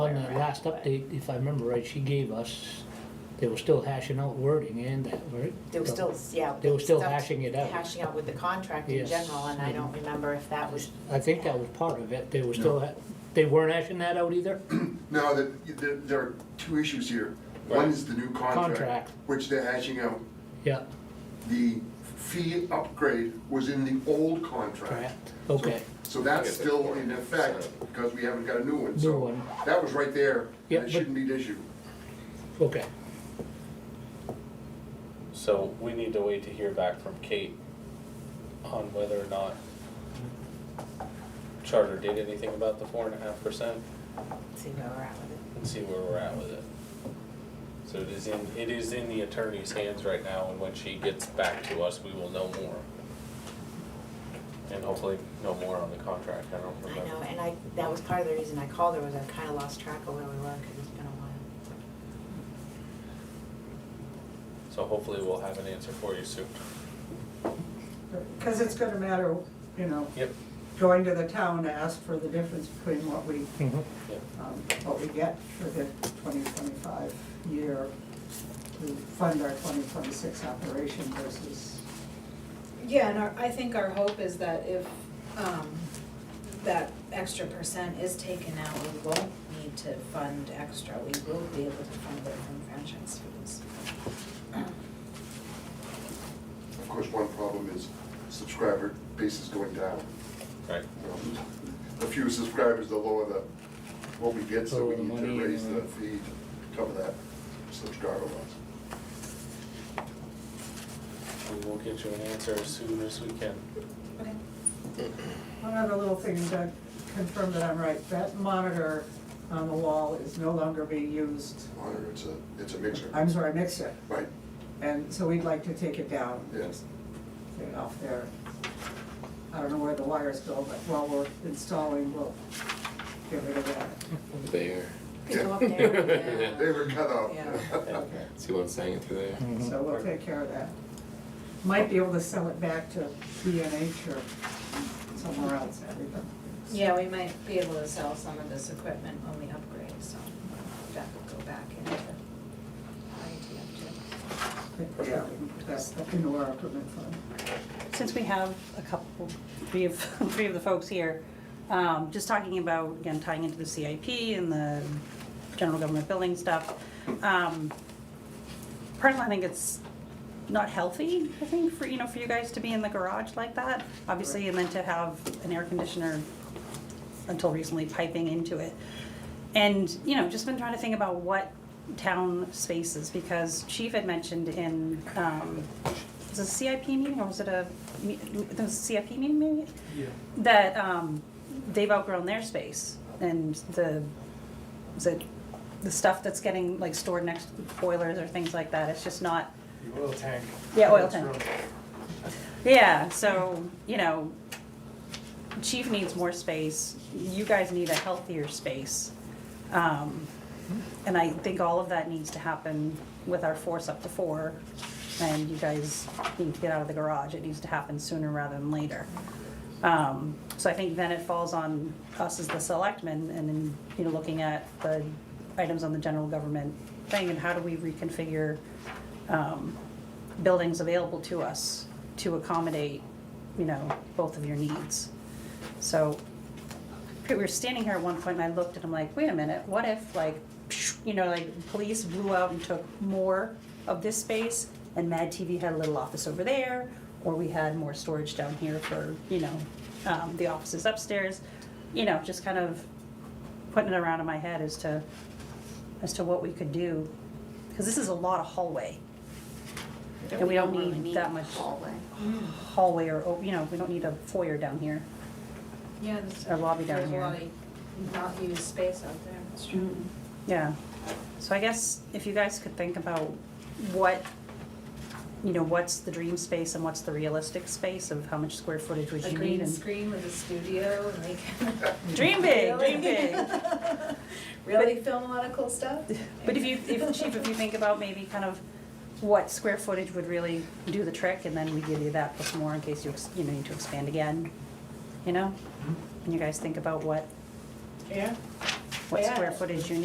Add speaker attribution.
Speaker 1: in our last update, if I remember right, she gave us, they were still hashing out wording and that, right?
Speaker 2: They were still, yeah.
Speaker 1: They were still
Speaker 2: stuff-
Speaker 1: hashing it out.
Speaker 2: Hashing out with the contract in
Speaker 1: Yes.
Speaker 2: general, and I don't remember if that was,
Speaker 1: I think that was part of it, they were still, ha- they weren't hashing that out either?
Speaker 3: No, the- there, there are two issues here. One is the new
Speaker 1: Contract.
Speaker 3: contract, which they're hashing out.
Speaker 1: Yeah,
Speaker 3: The fee upgrade was in the old contract.
Speaker 1: correct, okay.
Speaker 3: So that's still in effect, because we haven't got a new one.
Speaker 1: New
Speaker 3: So
Speaker 1: one.
Speaker 3: That was right there,
Speaker 1: Yeah,
Speaker 3: and
Speaker 1: but-
Speaker 3: it shouldn't be an issue.
Speaker 1: Okay,
Speaker 4: So we need to wait to hear back from Kate on whether or not Charter did anything about the four and a half percent
Speaker 2: let's see where we're at with it.
Speaker 4: and see where we're at with it. So it is in, it is in the attorney's hands right now, and when she gets back to us, we will know more. And hopefully know more on the contract, I don't
Speaker 2: I know,
Speaker 4: remember.
Speaker 2: and I, that was part of the reason I called her, was I kinda lost track of where we were, cause it's been a while.
Speaker 4: So hopefully we'll have an answer for you soon.
Speaker 5: Because it's gonna matter, you know,
Speaker 4: Yep.
Speaker 5: going to the town to ask for the difference between what we,
Speaker 1: mhm,
Speaker 5: um, what we get for the twenty twenty-five year to fund our twenty twenty-six operation versus,
Speaker 6: Yeah, and our, I think our hope is that if, um, that extra percent is taken out, we won't need to fund extra, we will be able to fund it from franchise fees.
Speaker 3: Of course, one problem is subscriber base is going down.
Speaker 4: Right.
Speaker 3: You know, The fewer subscribers, the lower the, what we get, so
Speaker 1: Lower
Speaker 3: we
Speaker 1: the
Speaker 3: need
Speaker 1: money, uh,
Speaker 3: to raise
Speaker 1: you know.
Speaker 3: the fee to cover that subscriber loss.
Speaker 4: We will get you an answer as soon as we can.
Speaker 6: Okay.
Speaker 5: one other little thing to confirm that I'm right, that monitor on the wall is no longer being used.
Speaker 3: Monitor, it's a, it's a mixer.
Speaker 5: I'm sorry, mixer,
Speaker 3: Right,
Speaker 5: and so we'd like to take it down.
Speaker 3: yes.
Speaker 5: get it off there. I don't know where the wires go, but while we're installing, we'll get rid of that.
Speaker 7: There.
Speaker 2: Could go up there.
Speaker 3: They were cut out.
Speaker 6: Yeah.
Speaker 5: Okay,
Speaker 7: See what I'm saying through there?
Speaker 1: mhm.
Speaker 5: so we'll take care of that. Might be able to sell it back to B and H or somewhere else, I don't know.
Speaker 6: Yeah, we might be able to sell some of this equipment when we upgrade, so that will go back into IT
Speaker 5: But, Yeah, we can put that into our equipment fund.
Speaker 8: Since we have a couple, three of, three of the folks here, um, just talking about, again, tying into the CIP and the general government building stuff. um, Personally, I think it's not healthy, I think, for, you know, for you guys to be in the garage like that, obviously, and then to have an air conditioner until recently piping into it. And, you know, just been trying to think about what town spaces, because Chief had mentioned in, um, was it a CIP meeting or was it a, me- there was a CIP meeting maybe? Yeah. That, um, they've outgrown their space and the, is it the stuff that's getting like stored next to the boilers or things like that, it's just not.
Speaker 9: The oil tank.
Speaker 8: Yeah, oil
Speaker 9: That's
Speaker 8: tank.
Speaker 9: really-
Speaker 8: Yeah, so, you know, chief needs more space, you guys need a healthier space. Um, And I think all of that needs to happen with our force up to four, and you guys need to get out of the garage, it needs to happen sooner rather than later. Um, So I think then it falls on us as the selectmen, and then, you know, looking at the items on the general government thing, and how do we reconfigure um, buildings available to us to accommodate, you know, both of your needs. So, we were standing here at one point and I looked and I'm like, wait a minute, what if like, psh, you know, like police blew out and took more of this space and Mad TV had a little office over there, or we had more storage down here for, you know, um, the offices upstairs. You know, just kind of putting it around in my head as to, as to what we could do, because this is a lot of hallway And we don't
Speaker 2: really
Speaker 8: need that much-
Speaker 2: Hallway.
Speaker 8: hallway or, oh, you know, we don't need a foyer down here.
Speaker 6: Yeah, there's.
Speaker 8: Our lobby down
Speaker 6: There's a
Speaker 8: here.
Speaker 6: lot of not used space out there, that's true.
Speaker 8: Yeah, so I guess if you guys could think about what, you know, what's the dream space and what's the realistic space of how much square footage would
Speaker 6: A
Speaker 8: you need
Speaker 6: green
Speaker 8: and.
Speaker 6: screen with a studio and they can
Speaker 8: Dream big, dream big.
Speaker 6: really film a lot of cool stuff.
Speaker 8: But if you, if, Chief, if you think about maybe kind of what square footage would really do the trick and then we give you that plus more in case you, ex- you know, need to expand again, you know? And you guys think about what,
Speaker 6: Yeah.
Speaker 8: what
Speaker 6: Yeah.
Speaker 8: square footage you